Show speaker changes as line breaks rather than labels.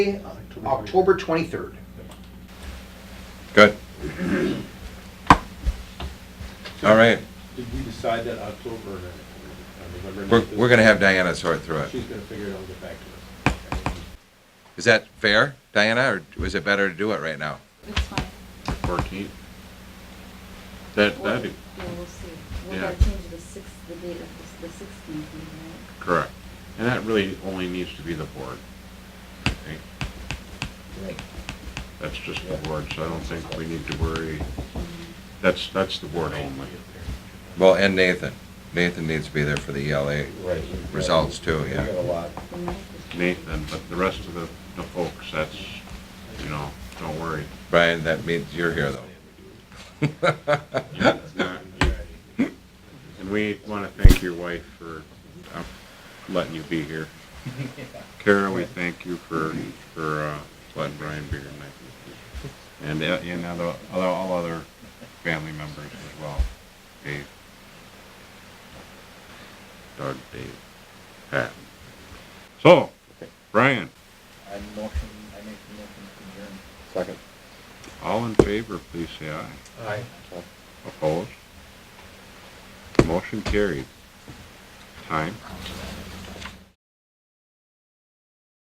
October 23rd.
Good. All right,
Did we decide that October or November?
we're, we're gonna have Diana sort through it.
She's gonna figure it out and get back to us.
Is that fair, Diana, or is it better to do it right now?
It's fine.
Fourteenth. That,
Well,
that'd be
Yeah, we'll see. We'll
Yeah.
gotta change the sixth, the date of the sixteenth, right?
correct. And that really only needs to be the board. I think. That's just the board, so I don't think we need to worry. That's, that's the board only.
Well, and Nathan. Nathan needs to be there for the ELA
Right.
results too,
We got a
yeah.
lot.
The ninth is-
Nathan, but the rest of the, the folks, that's, you know, don't worry.
Brian, that means you're here though.
Yeah, it's not- And we want to thank your wife for uh, letting you be here. Kara, we thank you for, for uh, letting Brian be here tonight. And, uh, and other, other- all other family members as well. Dave. Doug, Dave, Pat. So, Brian,
I motion, I make the motion to adjourn. Second.
all in favor, please say aye.
Aye.
Opposed? Motion carried. Time?